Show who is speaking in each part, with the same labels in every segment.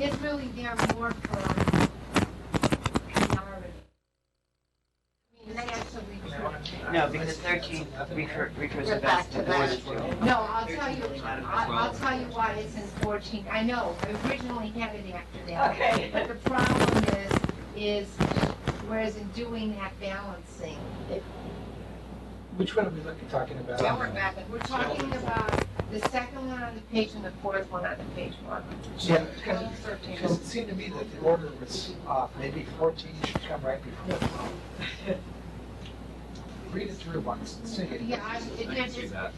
Speaker 1: It's really there more for priority. I mean, they actually do.
Speaker 2: No, because thirteen refer- refers to
Speaker 1: We're back
Speaker 2: best
Speaker 1: to
Speaker 2: and the
Speaker 1: that.
Speaker 2: worst.
Speaker 1: No, I'll tell you, I'll, I'll tell you why it's in fourteen. I know, I originally had it after that.
Speaker 3: Okay.
Speaker 1: But the problem is, is whereas in doing that balancing,
Speaker 4: Which one are we looking, talking about?
Speaker 1: now we're back, we're talking about the second one on the page and the fourth one on the page one.
Speaker 4: Yeah,
Speaker 1: Twelve,
Speaker 4: because
Speaker 1: thirteen.
Speaker 4: because it seemed to me that the order was off, maybe fourteen should come right before. Read it through once and see.
Speaker 1: Yeah, I, it,
Speaker 5: I can see
Speaker 1: it's,
Speaker 5: that.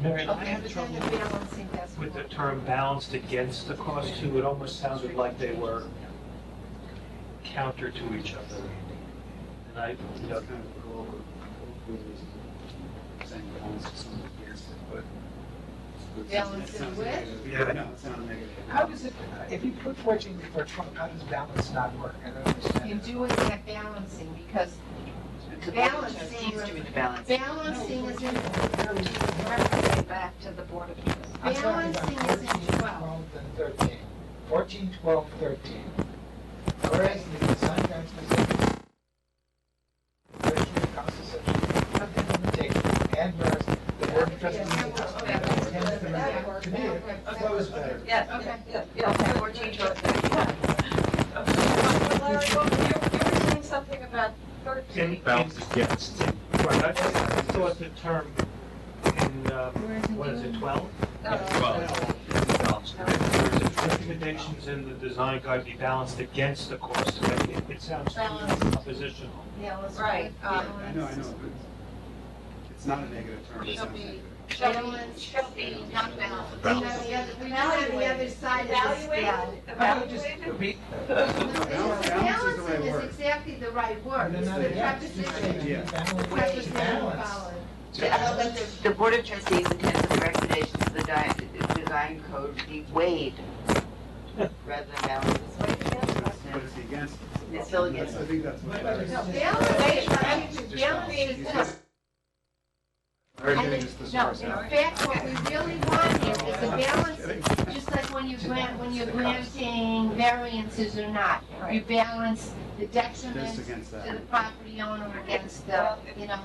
Speaker 6: Mary, I
Speaker 1: okay,
Speaker 6: have
Speaker 1: but then
Speaker 6: trouble
Speaker 1: the balancing, that's
Speaker 6: with the
Speaker 1: more.
Speaker 6: term balanced against the cost too. It almost sounded like they were counter to each other. And I, you know,
Speaker 1: Balance it with?
Speaker 5: Yeah, I know, it's not a negative.
Speaker 4: How does it, if you put fourteen before twelve, how does balance not work? I don't understand.
Speaker 1: You're doing that balancing because
Speaker 2: It's a
Speaker 1: Balance
Speaker 2: balance,
Speaker 1: thing.
Speaker 2: it's doing the balance.
Speaker 1: balancing is in,
Speaker 3: Back to the Board of Trustees.
Speaker 4: I'm talking about
Speaker 1: Balancing is in
Speaker 4: 14,
Speaker 1: 12.
Speaker 4: and thirteen. Fourteen, twelve, thirteen. Whereas the design guidelines specific thirteen constitution of implementation, and whereas the board of trustees intends to remain committed. That was better.
Speaker 3: Yeah,
Speaker 1: Okay.
Speaker 3: yeah, yeah, yeah, fourteen to Well, Larry, well, you, you were saying something about
Speaker 6: in,
Speaker 3: thirteen.
Speaker 6: in,
Speaker 5: against.
Speaker 6: right, I just thought the term in, um, what is it, twelve?
Speaker 3: uh,
Speaker 6: Recommendations in the design guide be balanced against the cost. It, it- it sounds
Speaker 1: Balanced.
Speaker 6: oppositional.
Speaker 1: balance with,
Speaker 3: Right, um,
Speaker 5: I know, I
Speaker 1: balance.
Speaker 5: know, but it's not a negative term. It
Speaker 3: Shall
Speaker 5: sounds
Speaker 3: be-
Speaker 5: negative.
Speaker 3: Shall be, shall be not
Speaker 1: And
Speaker 3: balanced.
Speaker 1: now the other, we now have the other side of this.
Speaker 3: Evaluated,
Speaker 4: I would just
Speaker 3: evaluated.
Speaker 4: be-
Speaker 5: Balance- balance is the right
Speaker 1: Balancing is
Speaker 5: word.
Speaker 1: exactly the right word,
Speaker 4: And
Speaker 1: it's
Speaker 4: then
Speaker 1: the
Speaker 4: I-
Speaker 1: preposition.
Speaker 5: Yeah.
Speaker 4: Balance,
Speaker 1: Preposition
Speaker 4: balance.
Speaker 1: followed.
Speaker 2: The Board of Trustees intends that the recommendations of the di- design code be weighed rather than balanced.
Speaker 5: But it's against.
Speaker 2: It's still against.
Speaker 5: I think that's much better.
Speaker 1: No, balance is, balance
Speaker 5: Just-
Speaker 1: is just
Speaker 5: Everything is this
Speaker 1: No, in
Speaker 5: person.
Speaker 1: fact, what we really want is, is a balance, just like when you grant, when you're granting variances or not. You balance the detriment
Speaker 5: Just
Speaker 1: to
Speaker 5: against
Speaker 1: the
Speaker 5: that.
Speaker 1: property owner against the, you know,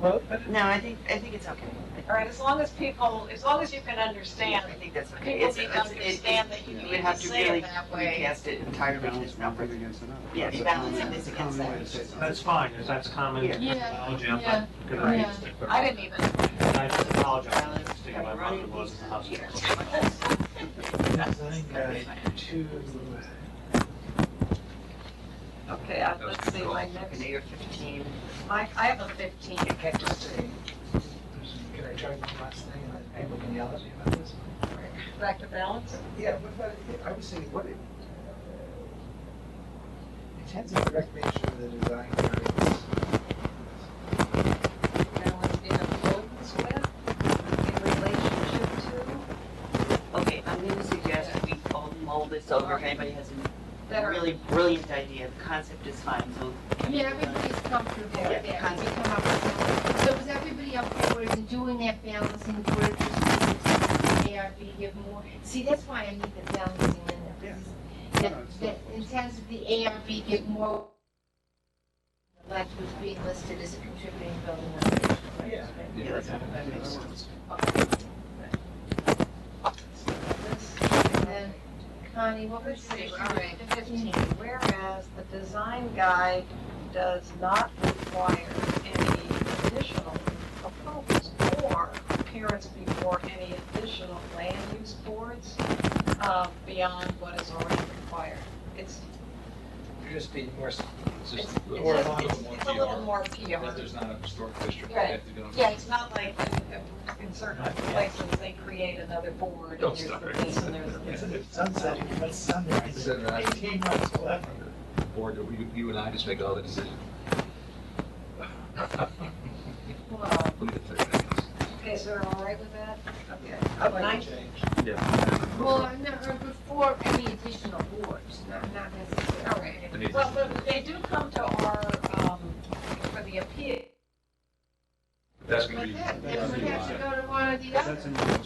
Speaker 4: Well, but
Speaker 2: No, I think, I think it's okay.
Speaker 3: All right, as long as people, as long as you can understand,
Speaker 2: I think that's okay.
Speaker 3: people
Speaker 2: It's-
Speaker 3: need to
Speaker 2: it's- it-
Speaker 3: understand that you
Speaker 5: you
Speaker 3: need
Speaker 2: would
Speaker 3: to
Speaker 2: have to
Speaker 3: say
Speaker 2: really
Speaker 3: it that way.
Speaker 2: Recast it entirely to
Speaker 5: Balance
Speaker 2: this
Speaker 5: one
Speaker 2: number.
Speaker 5: thing against another.
Speaker 2: Yeah,
Speaker 5: That's a
Speaker 2: balance
Speaker 5: common-
Speaker 2: this against
Speaker 5: common
Speaker 2: that.
Speaker 5: way to say something.
Speaker 6: That's fine, if that's common
Speaker 2: Yeah.
Speaker 6: terminology, I'm
Speaker 1: Yeah,
Speaker 6: not gonna
Speaker 1: yeah.
Speaker 6: use it.
Speaker 3: I didn't even,
Speaker 6: And I just apologize
Speaker 2: Balance,
Speaker 6: for sticking my mouth in those hospitals.
Speaker 4: design guide to,
Speaker 3: okay, uh, let's see, my next,
Speaker 2: Okay, you're fifteen.
Speaker 3: my, I have a fifteen.
Speaker 4: you can't just say, can I try one last thing and then people can yell at me about this?
Speaker 3: Back to balance?
Speaker 4: Yeah, what about, I was thinking, what, it intends the recommendation of the design guidelines.
Speaker 3: Balance in accordance with, in relationship to,
Speaker 2: Okay, I'm gonna suggest that we all mull this over. If anybody has
Speaker 3: that
Speaker 2: a
Speaker 3: are
Speaker 2: really brilliant idea, the concept is fine, so.
Speaker 1: I mean, everybody's comfortable
Speaker 2: Yeah,
Speaker 1: with that, we
Speaker 2: concept.
Speaker 1: come up with something. So is everybody okay with it, doing that balancing, where it just needs ARB, give more? See, that's why I need the balancing in there.
Speaker 5: Yeah.
Speaker 1: That, that intends that the ARB give more, that was being listed as a contributing building. operation.
Speaker 4: Yeah.
Speaker 2: Yeah, that's not a bad idea.
Speaker 1: And then, Connie, what would
Speaker 3: Let's
Speaker 1: you
Speaker 3: see,
Speaker 1: say?
Speaker 3: all right, fifteen, whereas the design guide does not require any additional approvals or appearance before any additional land use boards, uh, beyond what is already required. It's,
Speaker 4: You're just being more, s-
Speaker 7: It's
Speaker 3: it's,
Speaker 7: just,
Speaker 3: it's,
Speaker 7: or a lot
Speaker 3: it's-
Speaker 7: of
Speaker 3: it's a little
Speaker 7: more
Speaker 3: more
Speaker 7: PR, that
Speaker 3: PR.
Speaker 7: there's not a historic district.
Speaker 3: Right.
Speaker 7: they have to get on-
Speaker 3: Yeah, it's not like in- in certain places, they create another board, and
Speaker 7: Don't
Speaker 3: there's
Speaker 7: start.
Speaker 3: the this, and there's the
Speaker 4: it's a sunset, it's sunrise,
Speaker 7: Isn't that-
Speaker 4: eighteen months left.
Speaker 7: Or do you, you and I just make all the decisions?
Speaker 1: Well,
Speaker 7: Look at that.
Speaker 3: Okay, so we're all right with that? Okay.
Speaker 4: I'd like
Speaker 3: Nice.
Speaker 4: to change.
Speaker 1: well, I'm not, or before any additional boards, not, not necessarily.
Speaker 3: All right.
Speaker 7: I mean-
Speaker 3: Well, but they do come to our, um, for the appeal.
Speaker 7: That's gonna
Speaker 1: But
Speaker 7: be.
Speaker 1: then, then we have to go to one or the
Speaker 5: That's
Speaker 1: other.
Speaker 5: in-